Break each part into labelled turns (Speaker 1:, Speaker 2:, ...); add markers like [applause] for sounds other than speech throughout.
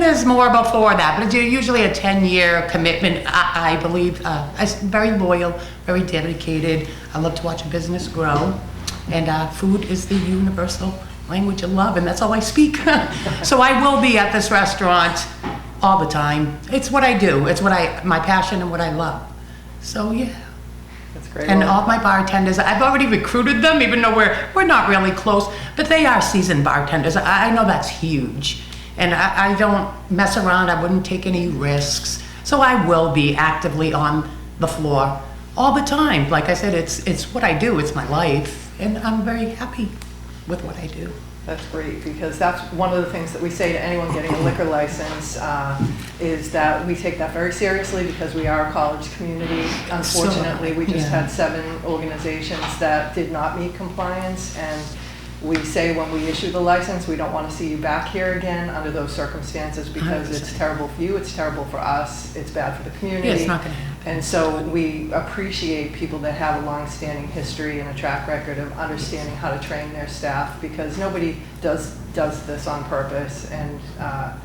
Speaker 1: there's more before that, but it's usually a 10-year commitment, I, I believe. Uh, I'm very loyal, very dedicated. I love to watch a business grow. And uh, food is the universal language of love, and that's all I speak. [laughs] so I will be at this restaurant all the time. It's what I do. It's what I, my passion and what I love. So yeah.
Speaker 2: That's great.
Speaker 1: And
Speaker 2: Well,
Speaker 1: all my bartenders, I've already recruited them, even though we're, we're not really close, but they are seasoned bartenders. I, I know that's huge. And I, I don't mess around, I wouldn't take any risks. So I will be actively on the floor all the time. Like I said, it's, it's what I do, it's my life, and I'm very happy with what I do.
Speaker 2: That's great, because that's one of the things that we say to anyone getting a liquor license, uh, is that we take that very seriously because we are a college community. Unfortunately, we just
Speaker 1: yeah.
Speaker 2: had seven organizations that did not meet compliance, and we say when we issue the license, we don't want to see you back here again under those circumstances because it's
Speaker 1: 100%.
Speaker 2: terrible for you, it's terrible for us, it's bad for the community.
Speaker 1: Yeah, it's not gonna happen.
Speaker 2: And so we appreciate people that have a long-standing history and a track record of understanding how to train their staff because nobody does, does this on purpose. And, uh,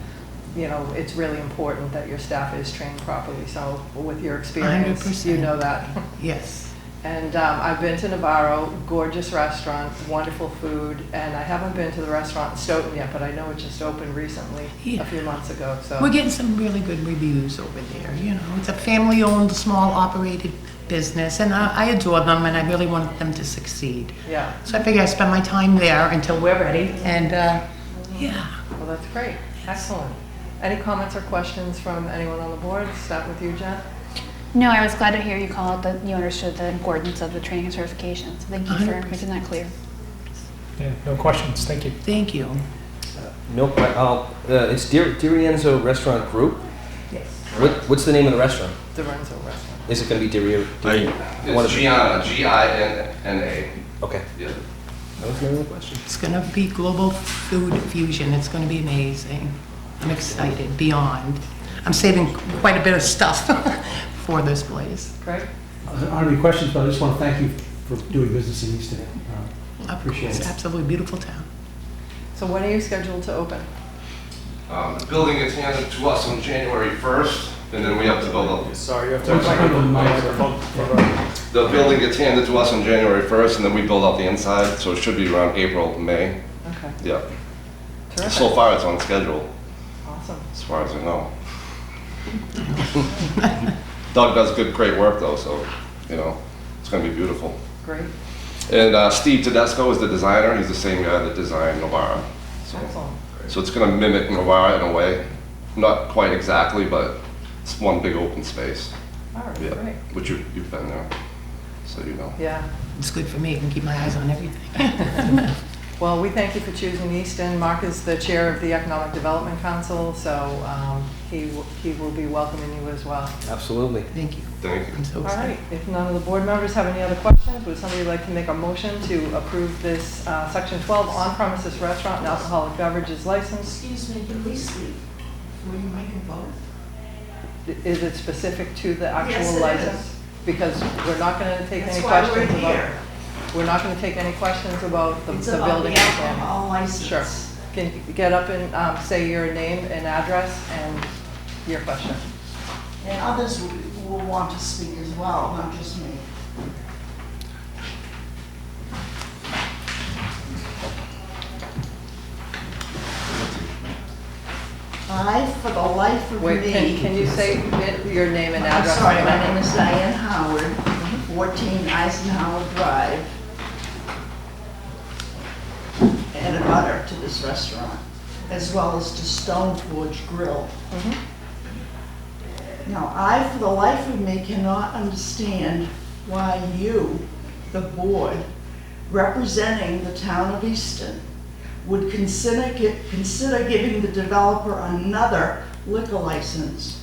Speaker 2: you know, it's really important that your staff is trained properly. So with your experience, you
Speaker 1: 100%.
Speaker 2: know that.
Speaker 1: Yes.
Speaker 2: And um, I've been to Navarro, gorgeous restaurant, wonderful food. And I haven't been to the restaurant in Stoughton yet, but I know it just opened recently,
Speaker 1: Yeah.
Speaker 2: a few months ago, so.
Speaker 1: We're getting some really good reviews over there, you know. It's a family-owned, small-operated business, and I I adore them, and I really want them to succeed.
Speaker 2: Yeah,
Speaker 1: So I figure I spend my time there until we're ready, and, uh, yeah.
Speaker 2: well, that's great. Excellent. Any comments or questions from anyone on the board? Start with you, Jen.
Speaker 3: No, I was glad to hear you call out that you understood the importance of the training and certification. So thank you for
Speaker 1: 100%.
Speaker 3: making that clear.
Speaker 4: Yeah, no questions, thank you.
Speaker 1: Thank you.
Speaker 5: No, que- uh, uh, it's Di- Di Rienzo Restaurant Group.
Speaker 2: Yes.
Speaker 5: What, what's the name of the restaurant?
Speaker 2: The Renzo Restaurant.
Speaker 5: Is it going to be Di Ri- Di- I wanna-
Speaker 6: It's Gianna, G-I-N-N-A.
Speaker 5: Okay.
Speaker 6: Yeah.
Speaker 5: That was my only question.
Speaker 1: It's gonna be global food fusion, it's gonna be amazing. I'm excited, beyond. I'm saving quite a bit of stuff [laughs] for this place.
Speaker 2: Great.
Speaker 7: I don't have any questions, but I just want to thank you for doing business in Easton. Uh, Appreciate
Speaker 1: It's
Speaker 7: it.
Speaker 1: absolutely beautiful town.
Speaker 2: So when are you scheduled to open?
Speaker 6: Um, The building is handed to us on January 1st, and then we have to build up.
Speaker 4: Sorry, you have
Speaker 7: Sorry, I don't mind.
Speaker 6: The building gets handed to us on January 1st, and then we build up the inside, so it should be around April, May.
Speaker 2: Okay,
Speaker 6: Yeah. So
Speaker 2: terrific,
Speaker 6: far, it's on schedule,
Speaker 2: awesome.
Speaker 6: as far as I know. Doug does good, great work, though, so, you know, it's gonna be beautiful.
Speaker 2: Great,
Speaker 6: And uh, Steve Tedesco is the designer, he's the same guy that designed Novara. So-
Speaker 2: excellent.
Speaker 6: So it's going to mimic Novara in a way, not quite exactly, but it's one big open space.
Speaker 2: All right,
Speaker 6: Yeah,
Speaker 2: great.
Speaker 6: which you, you've been there, so you know.
Speaker 2: Yeah,
Speaker 1: It's good for me, I can keep my eyes on everything.
Speaker 2: well, we thank you for choosing Easton. Mark is the chair of the Economic Development Council, so um, he will- he will be welcoming you as well.
Speaker 5: Absolutely.
Speaker 1: Thank you.
Speaker 6: Thank you.
Speaker 1: I'm so
Speaker 2: All
Speaker 1: excited.
Speaker 2: right, if none of the board members have any other questions, would somebody like to make a motion to approve this uh, Section 12 on-premises restaurant and alcoholic beverages license?
Speaker 8: Excuse me, can we sleep? Were you making both?
Speaker 2: Is it specific to the
Speaker 8: Yes, it
Speaker 2: actual
Speaker 8: is.
Speaker 2: license? Because we're not going to take any
Speaker 8: That's why
Speaker 2: questions
Speaker 8: we're
Speaker 2: about...
Speaker 8: here.
Speaker 2: We're not going to take any questions about the
Speaker 8: It's
Speaker 2: the
Speaker 8: about
Speaker 2: building.
Speaker 8: the
Speaker 2: and planning.
Speaker 8: alcohol
Speaker 2: Sure.
Speaker 8: license.
Speaker 2: Can you get up and um, say your name and address and your question?
Speaker 8: And others will- will want to speak as well, not just me. I, for the life of me.
Speaker 2: Wait, can can you say it- your name and
Speaker 8: I'm
Speaker 2: address?
Speaker 8: sorry, my name is Diane Howard, 14 Eisenhower Drive. And a butter to this restaurant, as well as to Stone Forge Grill.
Speaker 2: Mhm.
Speaker 8: Now, I, for the life of me, cannot understand why you, the board, representing the town of Easton, would consider, gi- consider giving the developer another liquor license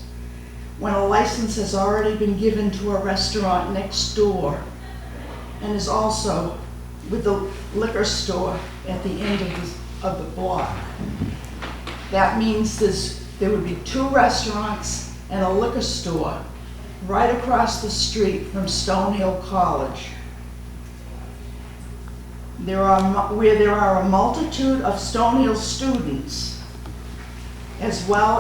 Speaker 8: when a license has already been given to a restaurant next door and is also with the liquor store at the end of the, of the block. That means there's, there would be two restaurants and a liquor store right across the street from Stonehill College. There are, mu- where there are a multitude of Stonehill students, as well